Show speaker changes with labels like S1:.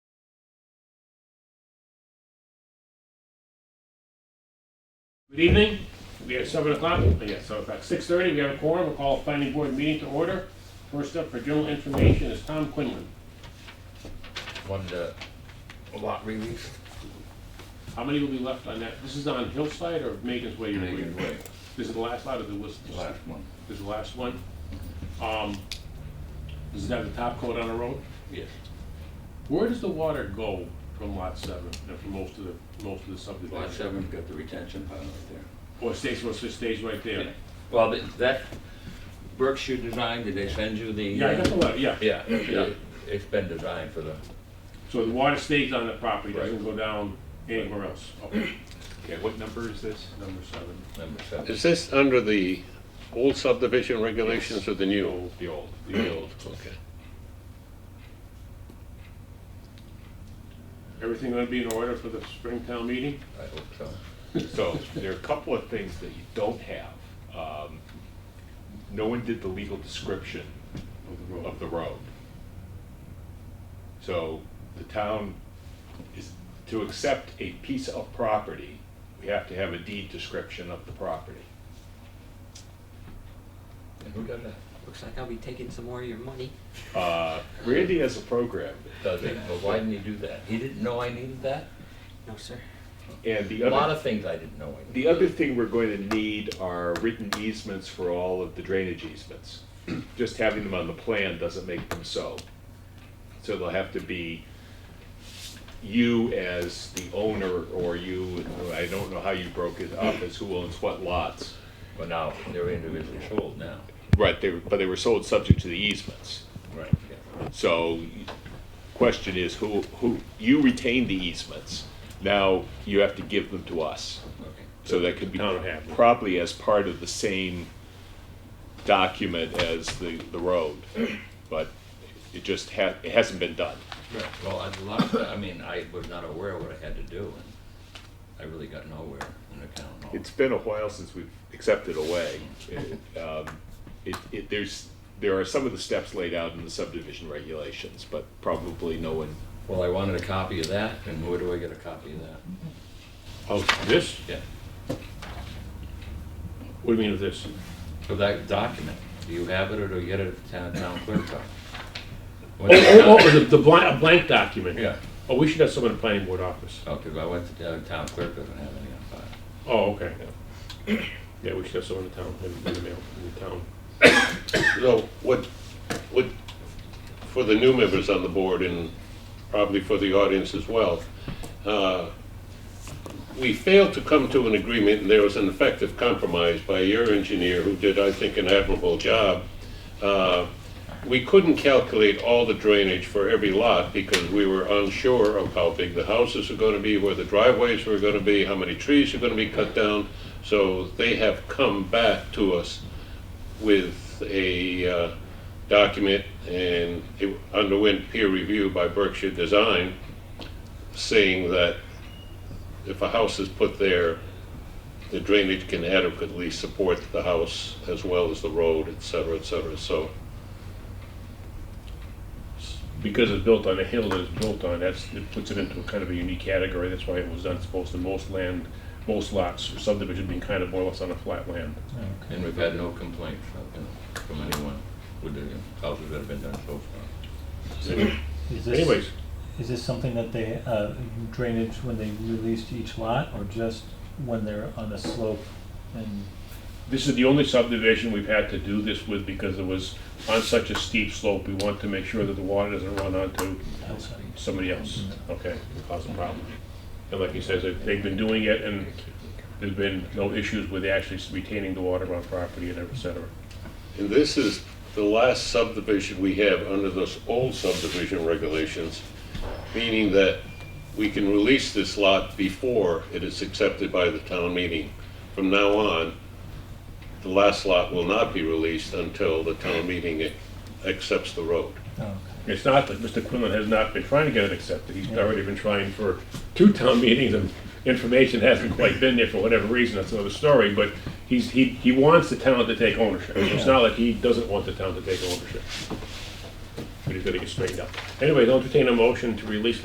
S1: Good evening. We have seven o'clock, oh, yeah, seven o'clock, six thirty, we have a quorum, we'll call a planning board meeting to order. First up for general information is Tom Quinlan.
S2: One to a lot release.
S1: How many will be left on that? This is on Hillside or Megan's Way? you're
S2: Megan's
S1: reading?
S2: Way.
S1: This is the last lot of the list?
S2: one.
S1: This is the last one? Um, does it have the top coat on the road?
S2: Yes.
S1: Where does the water go from lot seven and from most of the, most of the subdivision?
S2: Lot seven, got the retention pond right there.
S1: Or it stays, well, it stays right there?
S2: Well, th- that, Berkshire Design, did they send you the?
S1: Yeah, I got the letter, yeah.
S2: Yeah,
S1: Yeah.
S2: it- it's been designed for the,
S1: So the water stays on the property, doesn't
S2: Right.
S1: go down anywhere else? Okay,
S3: Okay, what number is this?
S1: number seven.
S2: number seven.
S4: Is this under the old subdivision regulations or the new?
S3: The old.
S4: The old, okay.
S1: Everything gonna be in order for the Springtown meeting?
S2: I hope so.
S3: So there are a couple of things that you don't have. Um, No one did the legal description
S1: Of the road.
S3: of the road. So the town is, to accept a piece of property, we have to have a deed description of the property.
S2: And who done that?
S5: Looks like I'll be taking some more of your money.
S3: Uh, Randy has a program,
S2: Does it, but why didn't he do that? He didn't know I needed that?
S5: No, sir.
S3: and the
S2: A lot
S3: other,
S2: of things I didn't know I needed.
S3: the other thing we're going to need are written easements for all of the drainage easements. Just having them on the plan doesn't make them so. So they'll have to be you as the owner or you, I don't know how you broke it up as who owns what lots.
S2: But now, they're individually sold now.
S3: Right, they, but they were sold subject to the easements.
S2: Right.
S3: So question is who, who, you retain the easements. Now you have to give them to us. So that could be
S1: Town would have them.
S3: probably as part of the same document as the, the road. But it just ha, it hasn't been done.
S2: Well, I, a lot of, I mean, I was not aware what I had to do, and I really got nowhere in the town hall.
S3: It's been a while since we've accepted away. Um, It, it, there's, there are some of the steps laid out in the subdivision regulations, but probably no one
S2: Well, I wanted a copy of that, and where do I get a copy of that?
S1: Oh, this?
S2: Yeah.
S1: What do you mean of this?
S2: For that document, do you have it, or do you get it at the town, town clerk? office?
S1: Oh, oh, oh, the, the blank, a blank document?
S2: Yeah,
S1: Oh, we should have someone in the planning board office.
S2: oh, 'cause I went to the town clerk, doesn't have any on file.
S1: Oh, okay. Yeah, we should have someone in the town, in the mail, in the town.
S4: So what, what, for the new members on the board and probably for the audience as well, uh, we failed to come to an agreement and there was an effective compromise by your engineer who did, I think, an admirable job. Uh, We couldn't calculate all the drainage for every lot because we were unsure of how big the houses are going to be, where the driveways were going to be, how many trees are going to be cut down. So they have come back to us with a uh, document, and it underwent peer review by Berkshire Design, saying that if a house is put there, the drainage can adequately support the house as well as the road, et cetera, et cetera. So
S1: Because it's built on a hill that it's built on, that's, it puts it into a kind of a unique category, that's why it was done, supposed to most land, most lots, or subdivision being kind of more or less on a flat land.
S2: And we've had no complaints you know, from anyone with the houses that have been done so far.
S6: Is this,
S1: Anyways,
S6: Is this something that they, uh, drainage when they released each lot or just when they're on a slope and?
S1: This is the only subdivision we've had to do this with because it was on such a steep slope. We want to make sure that the water doesn't run onto somebody else, okay, and cause a problem. And like he says, they've they've been doing it and there's been no issues with actually retaining the water on property and et cetera.
S4: And this is the last subdivision we have under those old subdivision regulations, meaning that we can release this lot before it is accepted by the town meeting. From now on, the last lot will not be released until the town meeting ac- accepts the road.
S6: Oh, okay.
S1: It's not that Mr. Quinlan has not been trying to get it accepted. He's already been trying for two town meetings and information hasn't quite been there for whatever reason. That's another story, but he's, he, he wants the town to take ownership. It's not like he doesn't want the town to take ownership. But he's gonna get straightened out. Anyway, I'll entertain a motion to release